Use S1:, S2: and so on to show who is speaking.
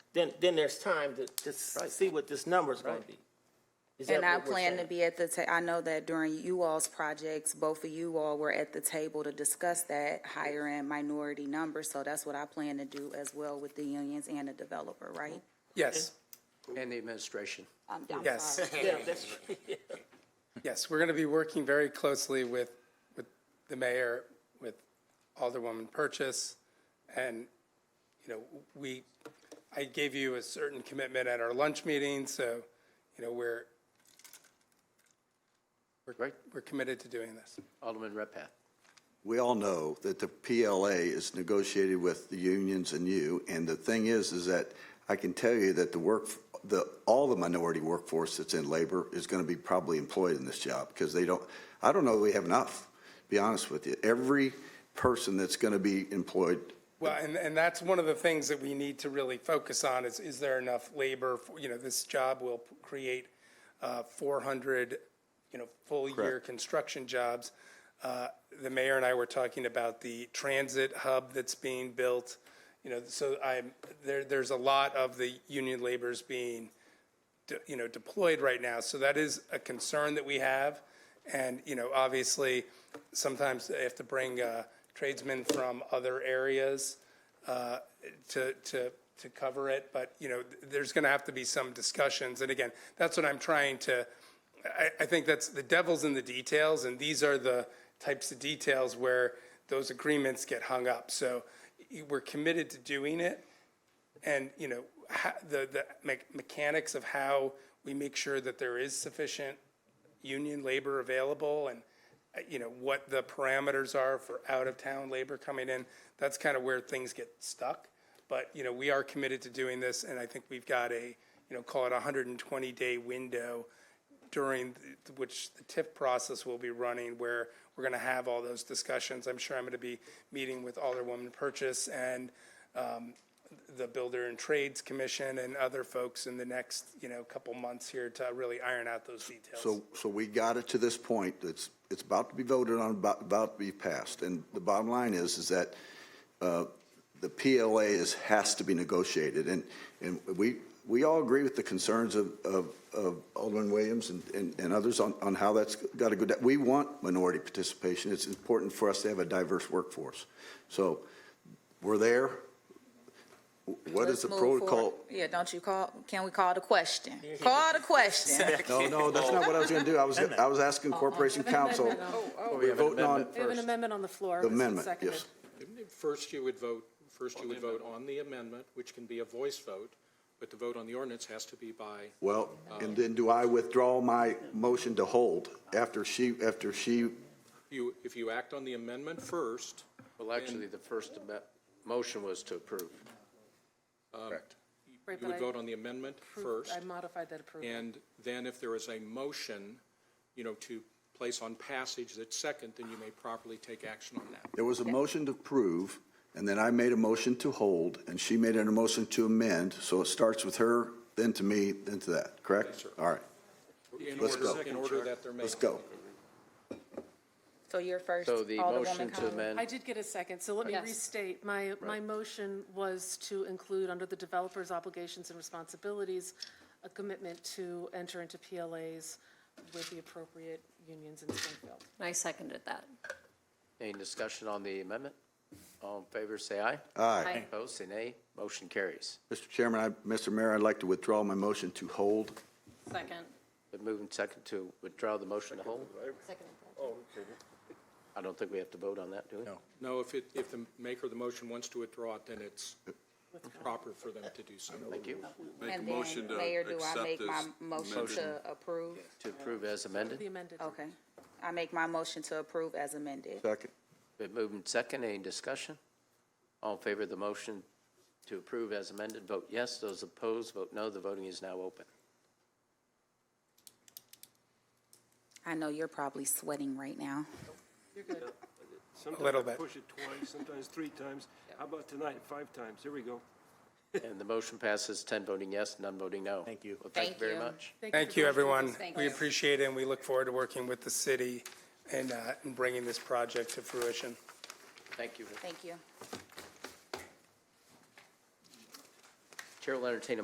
S1: then, then there's time to, to s- see what this number's gonna be. Is that
S2: And I
S1: what we're
S2: plan to
S1: saying?
S2: be at the ta, I know that during you all's projects, both of you all were at the table to discuss that higher end minority number, so that's what I plan to do as well with the unions and the developer, right? Um,
S3: Yes,
S4: And the administration.
S2: I'm, I'm
S3: Yes.
S2: sorry.
S1: Yeah, that's,
S3: yes, we're going to be working very closely with, with the mayor, with Alderwoman Purchase, and, you know, we, I gave you a certain commitment at our lunch meeting, so, you know, we're,
S4: Right.
S3: we're committed to doing this.
S4: Alderman Redpath.
S5: we all know that the PLA is negotiated with the unions and you, and the thing is, is that I can tell you that the work, the, all the minority workforce that's in labor is gonna be probably employed in this job, because they don't, I don't know that we have enough, to be honest with you. Every person that's gonna be employed
S3: Well, and, and that's one of the things that we need to really focus on is, is there enough labor? for- You know, this job will p- create uh, 400, you know, full-year
S5: Correct.
S3: construction jobs. Uh, The mayor and I were talking about the transit hub that's being built, you know, so I'm, there, there's a lot of the union labor's being, de- you know, deployed right now. So that is a concern that we have. And, you know, obviously, sometimes they have to bring uh, tradesmen from other areas uh, to, to, to cover it. But, you know, th- there's going to have to be some discussions. And again, that's what I'm trying to, I, I think that's, the devil's in the details. And these are the types of details where those agreements get hung up. So y- we're committed to doing it. And, you know, ha the, the me- mechanics of how we make sure that there is sufficient union labor available and, uh, you know, what the parameters are for out-of-town labor coming in, that's kind of where things get stuck. But, you know, we are committed to doing this, and I think we've got a, you know, call it a hundred and twenty-day window during th- which the TIF process will be running, where we're gonna have all those discussions. I'm sure I'm gonna be meeting with Alderwoman Purchase and, um, the Builder and Trades Commission and other folks in the next, you know, couple months here to really iron out those details.
S5: So, so we got it to this point, it's, it's about to be voted on, about, about to be passed. And the bottom line is, is that uh, the PLA is, has to be negotiated. And, and we, we all agree with the concerns of, of of Alderman Williams and, and and others on, on how that's got to go down. We want minority participation. It's important for us to have a diverse workforce. So we're there. What is
S2: Let's
S5: the
S2: move forward.
S5: protocol?
S2: Yeah, don't you call, can we call the question? Call the question.
S5: No, no, that's not what I was going to do. I was, I was asking Corporation Council. Oh, We're voting on,
S6: We have an amendment on the floor. It was
S5: Amendment,
S6: seconded.
S5: yes.
S7: First, you would vote, first you would vote on the amendment, which can be a voice vote, but the vote on the ordinance has to be by,
S5: Well, and then do I withdraw my motion to hold after she, after she,
S7: you, if you act on the amendment first,
S4: Well, actually, the first ame- motion was to approve. Correct.
S7: um, you
S6: Right, but
S7: would
S6: I
S7: vote on the amendment
S6: approved-
S7: first,
S6: I modified that approval.
S7: and then if there is a motion, you know, to place on passage that's second, then you may properly take action on that.
S5: there was a motion to approve, and then I made a motion to hold, and she made a motion to amend, so it starts with her, then to me, then to that, correct? All right,
S7: In
S5: Let's
S7: order-
S5: go.
S7: In order that there may.
S5: let's go.
S2: So you're first,
S4: So the motion
S2: Alderwoman
S4: to
S2: Collins.
S6: I
S4: amend,
S6: did get a second, so let me
S2: Yes.
S6: restate. My, my motion was to include under the developer's obligations and responsibilities, a commitment to enter into PLAs with the appropriate unions in Springfield.
S8: I seconded that.
S4: any discussion on the amendment? All in favor, say aye.
S8: Aye.
S4: Opposed, say nay. Motion carries.
S5: Mr. Chairman, I, Mr. Mayor, I'd like to withdraw my motion to hold.
S8: Second.
S4: Been moved and second to withdraw the motion to hold?
S5: Oh,
S4: I don't think we have to vote on that, do we? No.
S7: No, if it, if the maker of the motion wants to withdraw it, then it's proper for them to do so.
S4: Thank you.
S9: Make a
S2: And then,
S9: motion to
S2: Mayor, do I
S9: accept
S2: make my
S9: this
S2: motion
S9: amended.
S2: to approve?
S4: To approve as
S6: The
S4: amended.
S6: amended.
S2: Okay. I make my motion to approve as amended.
S5: Second.
S4: Been moved and second, any discussion? All in favor of the motion to approve as amended, vote yes. Those opposed, vote no. The voting is now open.
S2: I know you're probably sweating right now.
S10: Sometimes
S3: little
S10: I
S3: bit.
S10: Push it twice, sometimes three times. How about tonight, five times? Here we go.
S4: And the motion passes, 10 voting yes, none voting no. Thank you. Well, thank you
S2: Thank
S4: very
S2: you.
S4: much.
S3: Thank you, everyone.
S2: Thank
S3: We
S2: you.
S3: appreciate it, and we look forward to working with the city and, uh, and bringing this project to fruition.
S4: Thank you.
S2: Thank you.
S4: Chair will entertain a